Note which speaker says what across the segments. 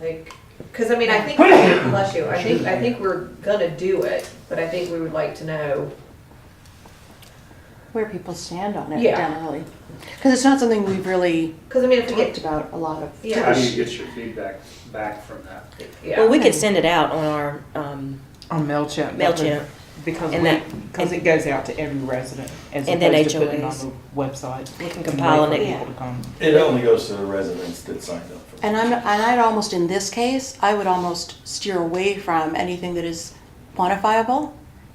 Speaker 1: Like, cause I mean, I think, bless you, I think, I think we're gonna do it, but I think we would like to know.
Speaker 2: where people stand on it
Speaker 1: Yeah.
Speaker 2: generally. Because it's not something we've really
Speaker 1: Cause I mean, if we
Speaker 2: talked
Speaker 1: get,
Speaker 2: about a lot of.
Speaker 1: Yeah.
Speaker 3: How do you get your feedback back from that?
Speaker 1: yeah.
Speaker 4: Well, we could send it out on our um,
Speaker 5: On MailChimp. that would-
Speaker 4: MailChimp.
Speaker 5: Because
Speaker 4: And
Speaker 5: we-
Speaker 4: that-
Speaker 5: 'cause it goes out to every resident as
Speaker 4: And then
Speaker 5: opposed to putting it on
Speaker 4: HOAs.
Speaker 5: the website. Um,
Speaker 4: We
Speaker 5: and
Speaker 4: can
Speaker 5: wait
Speaker 4: compile
Speaker 5: for
Speaker 4: it.
Speaker 5: people to come.
Speaker 6: It only goes to the residents that signed up for it.
Speaker 2: And I'm, and I'd almost, in this case, I would almost steer away from anything that is quantifiable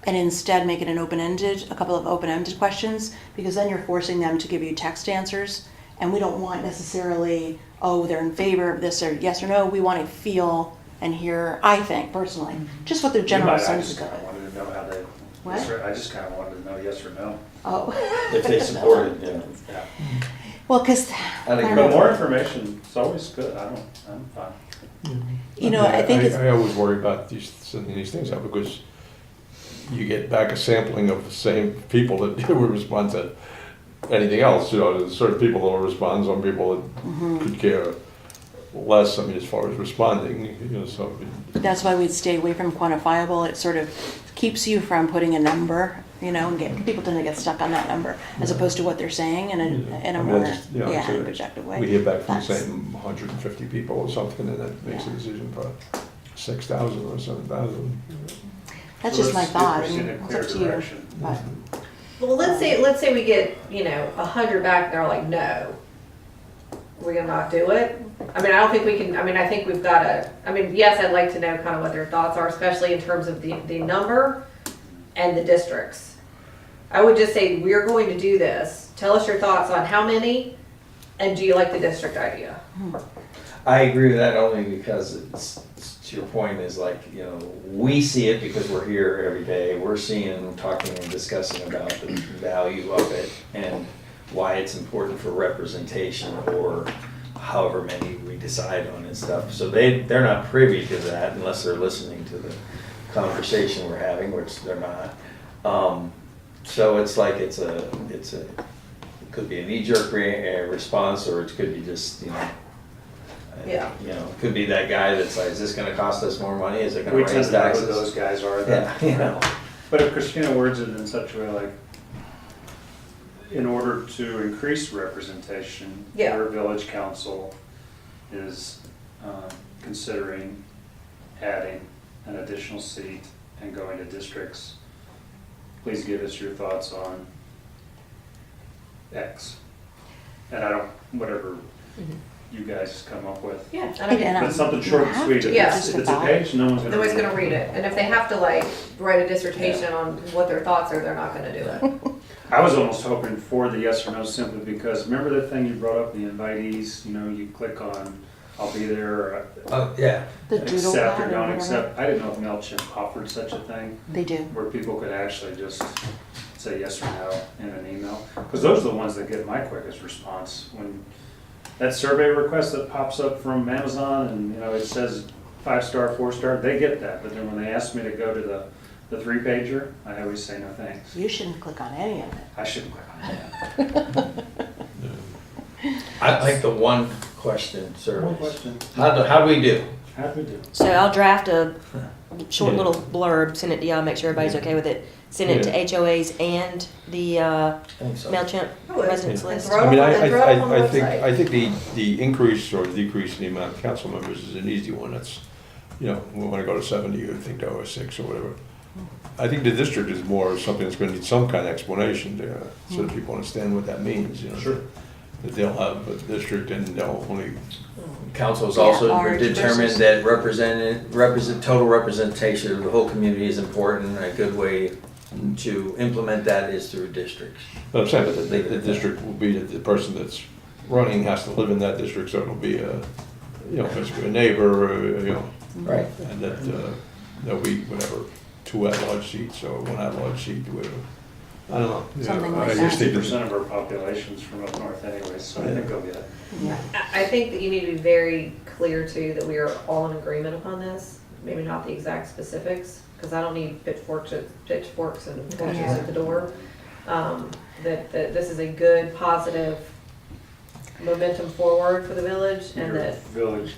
Speaker 2: and instead make it an open-ended, a couple of open-ended questions, because then you're forcing them to give you text answers. And we don't want necessarily, oh, they're in favor of this or yes or no. We want to feel and hear, I think personally, just what their general
Speaker 3: But I
Speaker 2: sense
Speaker 3: just
Speaker 2: is
Speaker 3: kind
Speaker 2: of
Speaker 3: of
Speaker 2: it.
Speaker 3: wanted to know how they,
Speaker 2: What?
Speaker 3: yes or- I just kind of wanted to know yes or no.
Speaker 2: Oh.
Speaker 6: If they support it, yeah.
Speaker 3: Yeah.
Speaker 2: Well, because,
Speaker 6: I think
Speaker 2: I don't know.
Speaker 3: But more information is always good. I don't, I'm fine.
Speaker 2: you know, I think it's,
Speaker 7: I always worry about these, sending these things out because you get back a sampling of the same people that would respond to anything else, you know, there's certain people that will respond, some people
Speaker 2: Mm-hmm.
Speaker 7: that could care less, I mean, as far as responding, you know, so.
Speaker 2: that's why we'd stay away from quantifiable. It sort of keeps you from putting a number, you know, and get, people tend to get stuck on that number as opposed to what they're saying in a, in
Speaker 7: I
Speaker 2: a
Speaker 7: mean,
Speaker 2: more,
Speaker 7: that's- you know,
Speaker 2: yeah,
Speaker 7: so
Speaker 2: objective
Speaker 7: We
Speaker 2: way.
Speaker 7: hear back from the
Speaker 2: That's-
Speaker 7: same hundred and fifty people or something, and that makes a
Speaker 2: Yeah.
Speaker 7: decision for six thousand or seven thousand.
Speaker 2: That's
Speaker 3: So
Speaker 2: just my
Speaker 3: let's-
Speaker 2: thought.
Speaker 3: If
Speaker 2: I
Speaker 3: we
Speaker 2: mean,
Speaker 3: send a
Speaker 2: It's
Speaker 3: clear
Speaker 2: up to you.
Speaker 3: direction,
Speaker 2: But
Speaker 1: Well, let's say, let's say we get, you know, a hundred back and they're like, no. We're gonna not do it. I mean, I don't think we can, I mean, I think we've gotta, I mean, yes, I'd like to know kind of what their thoughts are, especially in terms of the, the number and the districts. I would just say, we're going to do this. Tell us your thoughts on how many and do you like the district idea?
Speaker 6: I agree with that only because it's, it's- to your point is like, you know, we see it because we're here every day. We're seeing, talking and discussing about the value of it and why it's important for representation or however many we decide on and stuff. So they, they're not privy to that unless they're listening to the conversation we're having, which they're not. Um, so it's like, it's a, it's a, it could be a knee-jerk re- uh, response or it could be just, you know, uh,
Speaker 1: Yeah.
Speaker 6: you know, could be that guy that's like, is this gonna cost us more money? Is it gonna
Speaker 3: We tend
Speaker 6: raise
Speaker 3: to know who
Speaker 6: taxes?
Speaker 3: those guys are.
Speaker 6: Yeah, you know.
Speaker 3: But if Christina words it in such a way like, in order to increase representation,
Speaker 1: Yeah.
Speaker 3: your village council is um, considering adding an additional seat and going to districts. Please give us your thoughts on X. And I don't, whatever you guys come up with.
Speaker 1: Yeah.
Speaker 2: And
Speaker 3: But
Speaker 2: I'm-
Speaker 3: something short and
Speaker 2: you have
Speaker 3: sweet. If
Speaker 1: to
Speaker 3: it's,
Speaker 2: just
Speaker 3: if it's a
Speaker 2: about-
Speaker 3: page, no one's gonna.
Speaker 1: Nobody's gonna read it. And if they have to like write a dissertation on what their thoughts are, they're not gonna do it.
Speaker 3: I was almost hoping for the yes or no simply because remember the thing you brought up, the invitees, you know, you click on, I'll be there, or uh,
Speaker 6: Oh, yeah.
Speaker 2: the doodle
Speaker 3: accept or
Speaker 2: pad
Speaker 3: don't
Speaker 2: or whatever, Mm-hmm.
Speaker 3: accept. I didn't know if MailChimp offered such a thing
Speaker 2: they do.
Speaker 3: where people could actually just say yes or no in an email. Because those are the ones that get my quickest response when that survey request that pops up from Amazon and, you know, it says five star, four star, they get that. But then when they ask me to go to the, the three pager, I always say no thanks.
Speaker 2: You shouldn't click on any of it.
Speaker 3: I shouldn't click on that.
Speaker 6: I like the one question
Speaker 3: One
Speaker 6: service.
Speaker 3: question.
Speaker 6: How do, how do we do?
Speaker 3: How do we do?
Speaker 4: So I'll draft a short
Speaker 7: Yeah.
Speaker 4: little blurb, send it to y'all, make sure everybody's okay with it. Send it
Speaker 7: Yeah.
Speaker 4: to HOAs and the uh,
Speaker 6: I think so.
Speaker 4: MailChimp
Speaker 1: I would.
Speaker 4: residents
Speaker 1: Yeah.
Speaker 4: list.
Speaker 1: Throw it
Speaker 7: I mean,
Speaker 1: on-
Speaker 7: I,
Speaker 1: throw it on the
Speaker 7: I, I, I think,
Speaker 1: website.
Speaker 7: I think the, the increase or decrease in the amount of council members is an easy one, that's, you know, we wanna go to seventy, you think to oh six or whatever. I think the district is more something that's gonna need some kind of explanation there, so
Speaker 1: Hmm.
Speaker 7: that people understand what that means, you know.
Speaker 3: Sure.
Speaker 7: That they'll have a district and they'll only,
Speaker 6: Council's
Speaker 2: Yeah,
Speaker 6: also
Speaker 2: large versus-
Speaker 6: determined that represented, represent, total representation of the whole community is important. A good way to implement that is through districts.
Speaker 7: but I'm saying, that the, the district will be, that the person that's running has to live in that district, so it'll be a, you know, basically a neighbor, uh, you know.
Speaker 6: Right.
Speaker 7: And that, uh, there'll be whatever, two at-large seats or one at-large seat, whatever. I don't know. you know,
Speaker 2: Something like
Speaker 7: I just
Speaker 2: that.
Speaker 7: think
Speaker 3: Sixty percent of our population's from up north anyway, so I think they'll get it.
Speaker 1: I I think that you need to be very clear too, that we are all in agreement upon this, maybe not the exact specifics, because I don't need pitchforks, at- pitchforks and torches at the door. Um, That, that this is a good, positive momentum forward for the village and
Speaker 3: Your
Speaker 1: that
Speaker 3: village